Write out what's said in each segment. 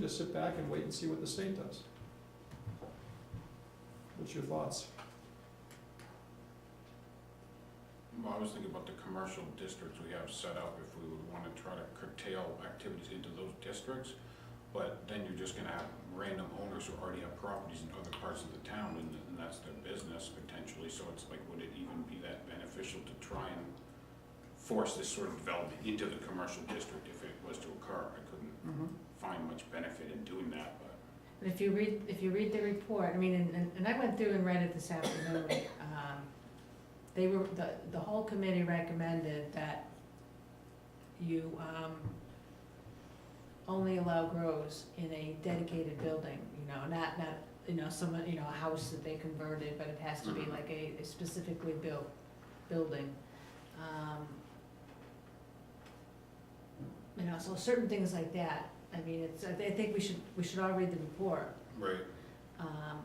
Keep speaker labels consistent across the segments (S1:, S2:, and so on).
S1: just sit back and wait and see what the state does. What's your thoughts?
S2: Well, I was thinking about the commercial districts we have set up, if we would wanna try to curtail activities into those districts. But then you're just gonna have random owners who already have properties in other parts of the town, and, and that's their business potentially, so it's like, would it even be that beneficial to try and force this sort of development into the commercial district if it was to occur? I couldn't find much benefit in doing that, but.
S3: But if you read, if you read the report, I mean, and- and, and I went through and read it this afternoon, um, they were, the, the whole committee recommended that you, um, only allow grows in a dedicated building, you know, not, not, you know, someone, you know, a house that they converted, but it has to be
S2: Mhm.
S3: like a a specifically built building. Um, You know, so certain things like that, I mean, it's, I thi- I think we should, we should all read the report,
S2: Right.
S3: um,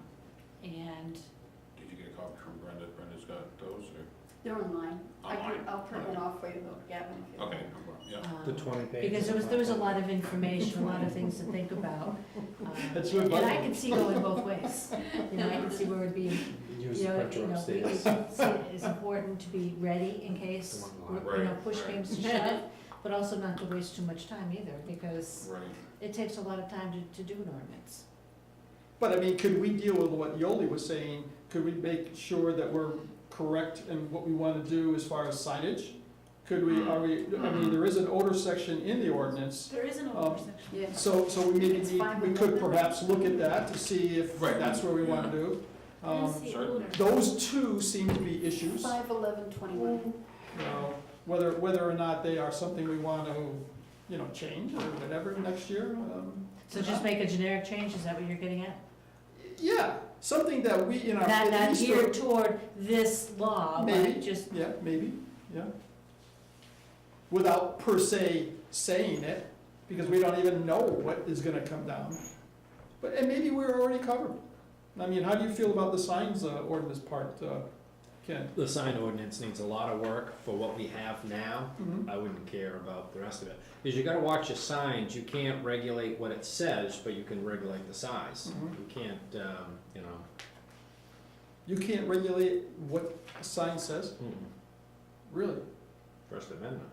S3: and,
S2: Did you get a copy from Brenda? Brenda's got those, or?
S4: They're online. I
S2: Online.
S4: can, I'll print one off for you, though, Gavin. if you
S2: Okay,
S4: want.
S2: no problem, yeah.
S3: um,
S5: The twenty pages.
S3: because there was, there was a lot of information, a lot of things to think about. um,
S1: That's your
S3: And I
S1: button.
S3: can see going both ways, you know, I can see where it'd be,
S5: Use
S3: you
S5: the
S3: know, you
S5: printer
S3: know,
S5: upstairs.
S3: it's, it's important to be ready in case,
S5: The one
S3: you know,
S2: Right,
S3: push
S2: right.
S3: games to shove, but also not to waste too much time either, because
S2: Right.
S3: it takes a lot of time to, to do an ordinance.
S1: But I mean, could we deal with what Yoli was saying? Could we make sure that we're correct in what we want to do as far as signage? Could we, are we, I mean, there is an odor section in the ordinance,
S6: There is an
S1: Um,
S6: older section.
S4: Yeah.
S1: so, so we maybe
S4: It's
S1: need,
S4: fine
S1: we
S4: with
S1: could
S4: what we're-
S1: perhaps look at that to see if
S2: Right,
S1: that's where we want to
S2: yeah.
S1: do.
S6: There
S1: Um,
S6: is the
S2: sorry?
S6: older.
S1: Those two seem to be issues.
S4: Five eleven twenty-one.
S1: you know, whether, whether or not they are something we want to, you know, change or whatever next year. um,
S3: So just make a generic change, is that what you're getting at?
S1: Yeah, something that we, you know.
S3: Not,
S1: at
S3: not
S1: least-
S3: geared toward this law,
S1: Maybe.
S3: but just,
S1: Yeah, maybe, yeah. Without per se saying it, because we don't even know what is gonna come down. But, and maybe we're already covered. I mean, how do you feel about the signs uh, ordinance part, uh, Ken?
S5: The sign ordinance needs a lot of work for what we have now.
S1: Mhm.
S5: I wouldn't care about the rest of it. Because you gotta watch your signs, you can't regulate what it says, but you can regulate the size.
S1: Mhm.
S5: You can't, um, you know,
S1: You can't regulate what a sign says, really?
S5: hmm, First Amendment.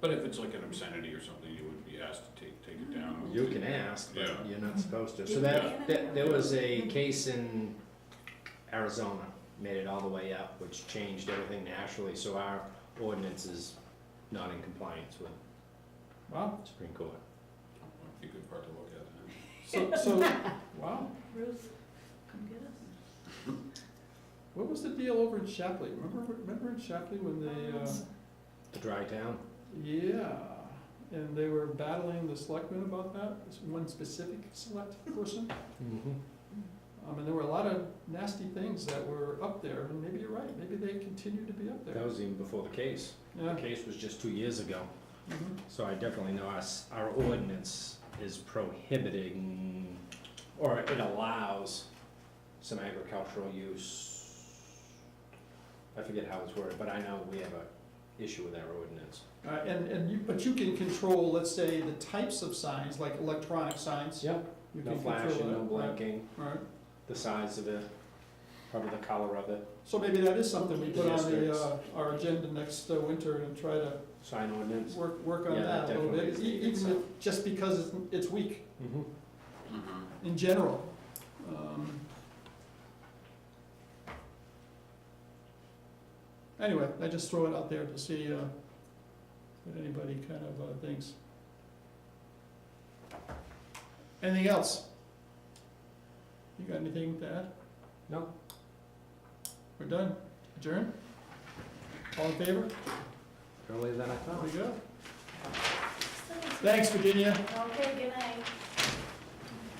S2: But if it's like an obscenity or something, you would be asked to take, take it down.
S5: You can ask,
S2: Yeah.
S5: but you're not supposed to. So
S6: You
S5: that,
S6: can.
S5: that, there was a case in Arizona, made it all the way up, which changed everything nationally, so our ordinance is not in compliance with
S1: Wow,
S5: Supreme Court.
S2: Might be a good part to look at.
S1: so, so, wow.
S6: Ruth, come get us.
S1: What was the deal over in Shapley? Remember, remember in Shapley when they, uh,
S5: The dry town,
S1: yeah, and they were battling the selectmen about that, this one specific select person? Um, and there were a lot of nasty things that were up there, and maybe you're right, maybe they continue to be up
S5: that
S1: there.
S5: was even before the case. The
S1: Yeah,
S5: case was just two years ago.
S1: mhm.
S5: So I definitely know us, our ordinance is prohibiting, or it allows some agricultural use. I forget how it's worded, but I know we have a issue with our ordinance.
S1: Uh, and, and you, but you can control, let's say, the types of signs, like electronic signs.
S5: Yep.
S1: You
S5: No
S1: can control
S5: flashing, no
S1: that, right,
S5: blinking,
S1: Right,
S5: the size of it, probably the color of it,
S1: so maybe that is something we put on the,
S5: Districts.
S1: uh, our agenda next uh, winter and try to
S5: sign ordinance.
S1: work, work on
S5: Yeah,
S1: that a little
S5: definitely
S1: bit,
S5: is
S1: e-
S5: needed,
S1: even
S5: so.
S1: if- just because it's, it's weak
S5: Mhm.
S2: Mm-hmm.
S1: in general. Um, Anyway, I just throw it out there to see, uh, what anybody kind of, uh, thinks. Anything else? You got anything to add?
S5: No.
S1: We're done, adjourn? All in favor?
S5: Earlier than I thought.
S1: There we go. Thanks, Virginia.
S6: Okay, good night.